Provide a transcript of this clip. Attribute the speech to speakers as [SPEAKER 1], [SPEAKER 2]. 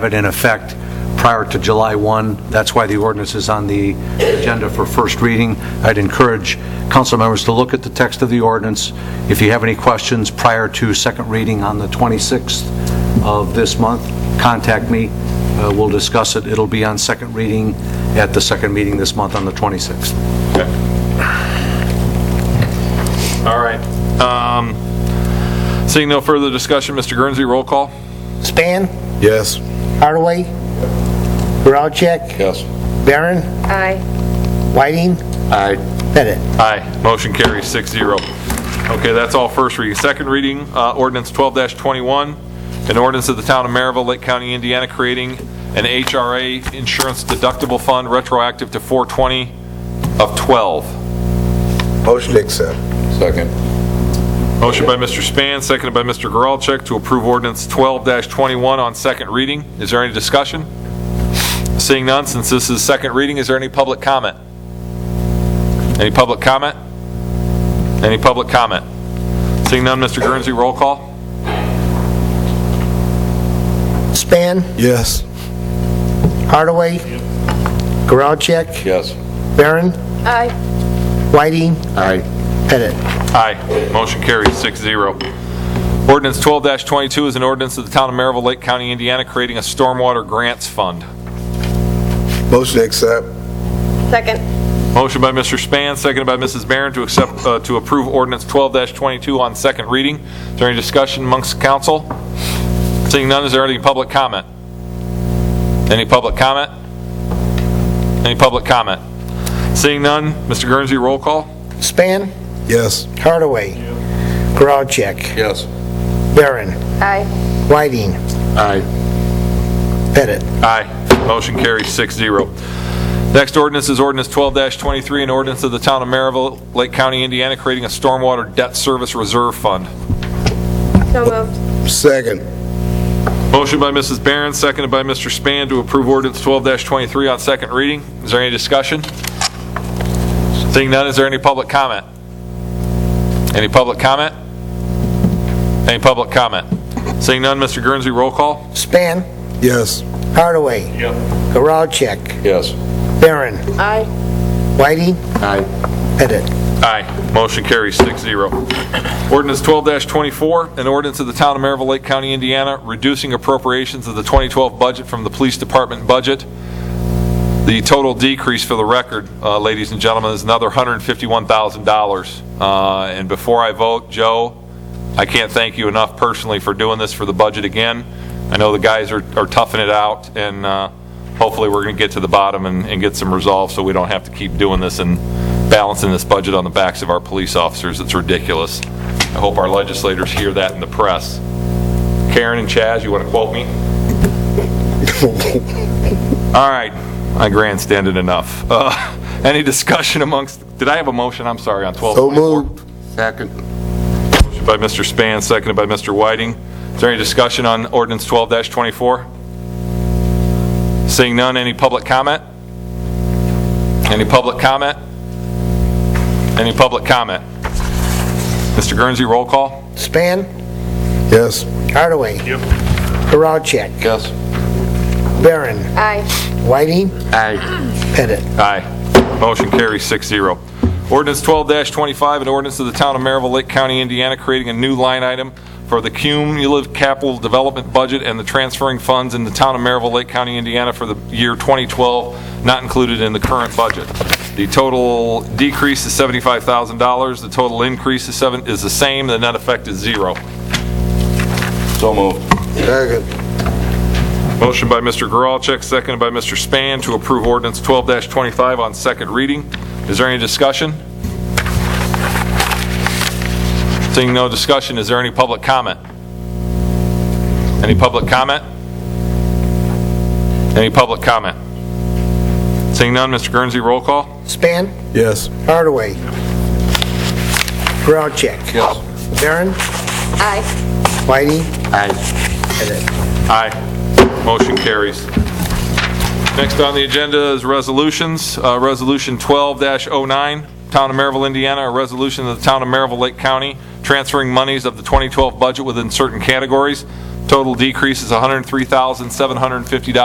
[SPEAKER 1] it in effect prior to July 1. That's why the ordinance is on the agenda for first reading. I'd encourage council members to look at the text of the ordinance. If you have any questions prior to second reading on the 26th of this month, contact me. Uh, We'll discuss it. It'll be on second reading at the second meeting this month on the 26th.
[SPEAKER 2] All right. Um, Seeing no further discussion, Mr. Guernsey, roll call?
[SPEAKER 3] Span,
[SPEAKER 4] Yes.
[SPEAKER 3] Hardaway, Geralcheck,
[SPEAKER 4] Yes.
[SPEAKER 3] Barron,
[SPEAKER 5] Aye.
[SPEAKER 3] Whiting,
[SPEAKER 4] Aye.
[SPEAKER 3] Pettit.
[SPEAKER 2] Aye. Motion carries six zero. Okay, that's all first reading. Second reading, uh, ordinance 12-21, an ordinance of the town of Maryville, Lake County, Indiana, creating an HRA insurance deductible fund retroactive to 420 of 12.
[SPEAKER 4] Motion to accept. Second.
[SPEAKER 2] Motion by Mr. Span, seconded by Mr. Geralcheck to approve ordinance 12-21 on second reading. Is there any discussion? Seeing none, since this is second reading, is there any public comment? Any public comment? Any public comment? Seeing none, Mr. Guernsey, roll call?
[SPEAKER 3] Span,
[SPEAKER 4] Yes.
[SPEAKER 3] Hardaway, Geralcheck,
[SPEAKER 4] Yes.
[SPEAKER 3] Barron,
[SPEAKER 5] Aye.
[SPEAKER 3] Whiting,
[SPEAKER 4] Aye.
[SPEAKER 3] Pettit.
[SPEAKER 2] Aye. Motion carries six zero. Ordinance 12-22 is an ordinance of the town of Maryville, Lake County, Indiana, creating a stormwater grants fund.
[SPEAKER 4] Motion to accept.
[SPEAKER 5] Second.
[SPEAKER 2] Motion by Mr. Span, seconded by Mrs. Barron to accept, uh, to approve ordinance 12-22 on second reading. Is there any discussion amongst council? Seeing none, is there any public comment? Any public comment? Any public comment? Seeing none, Mr. Guernsey, roll call?
[SPEAKER 3] Span,
[SPEAKER 4] Yes.
[SPEAKER 3] Hardaway, Geralcheck,
[SPEAKER 4] Yes.
[SPEAKER 3] Barron,
[SPEAKER 5] Aye.
[SPEAKER 3] Whiting,
[SPEAKER 4] Aye.
[SPEAKER 3] Pettit.
[SPEAKER 2] Aye. Motion carries six zero. Next ordinance is ordinance 12-23, an ordinance of the town of Maryville, Lake County, Indiana, creating a stormwater debt service reserve fund.
[SPEAKER 5] So moved.
[SPEAKER 4] Second.
[SPEAKER 2] Motion by Mrs. Barron, seconded by Mr. Span to approve ordinance 12-23 on second reading. Is there any discussion? Seeing none, is there any public comment? Any public comment? Any public comment? Seeing none, Mr. Guernsey, roll call?
[SPEAKER 3] Span,
[SPEAKER 4] Yes.
[SPEAKER 3] Hardaway, Geralcheck,
[SPEAKER 4] Yes.
[SPEAKER 3] Barron,
[SPEAKER 5] Aye.
[SPEAKER 3] Whiting,
[SPEAKER 4] Aye.
[SPEAKER 3] Pettit.
[SPEAKER 2] Aye. Motion carries six zero. Ordinance 12-24, an ordinance of the town of Maryville, Lake County, Indiana, reducing appropriations of the 2012 budget from the police department budget The total decrease for the record, uh, ladies and gentlemen, is another $151,000. Uh, And before I vote, Joe, I can't thank you enough personally for doing this for the budget again. I know the guys are are toughing it out, and uh, hopefully we're going to get to the bottom and and get some resolve so we don't have to keep doing this and balancing this budget on the backs of our police officers. It's ridiculous. I hope our legislators hear that in the press. Karen and Chaz, you want to quote me? All right, I grandstanded enough. Uh, Any discussion amongst, did I have a motion? I'm sorry, on 12?
[SPEAKER 4] So moved. Second.
[SPEAKER 2] Motion by Mr. Span, seconded by Mr. Whiting. Is there any discussion on ordinance 12-24? Seeing none, any public comment? Any public comment? Any public comment? Mr. Guernsey, roll call?
[SPEAKER 3] Span,
[SPEAKER 4] Yes.
[SPEAKER 3] Hardaway. Geralcheck,
[SPEAKER 4] Yes.
[SPEAKER 3] Barron,
[SPEAKER 5] Aye.
[SPEAKER 3] Whiting,
[SPEAKER 4] Aye.
[SPEAKER 3] Pettit.
[SPEAKER 2] Aye. Motion carries six zero. Ordinance 12-25, an ordinance of the town of Maryville, Lake County, Indiana, creating a new line item for the cumulative capital development budget and the transferring funds in the town of Maryville, Lake County, Indiana for the year 2012, not included in the current budget. The total decrease is $75,000. The total increase is seven, is the same. The net effect is zero.
[SPEAKER 4] So moved. Second.
[SPEAKER 2] Motion by Mr. Geralcheck, seconded by Mr. Span to approve ordinance 12-25 on second reading. Is there any discussion? Seeing no discussion, is there any public comment? Any public comment? Any public comment? Seeing none, Mr. Guernsey, roll call?
[SPEAKER 3] Span,
[SPEAKER 4] Yes.
[SPEAKER 3] Hardaway. Geralcheck.
[SPEAKER 4] Yes.
[SPEAKER 3] Barron,
[SPEAKER 5] Aye.
[SPEAKER 3] Whiting,
[SPEAKER 4] Aye.
[SPEAKER 2] Aye. Motion carries. Next on the agenda is resolutions. Uh, Resolution 12-09, Town of Maryville, Indiana, a resolution of the Town of Maryville, Lake County, transferring monies of the 2012 budget within certain categories. Total decrease is $103,750.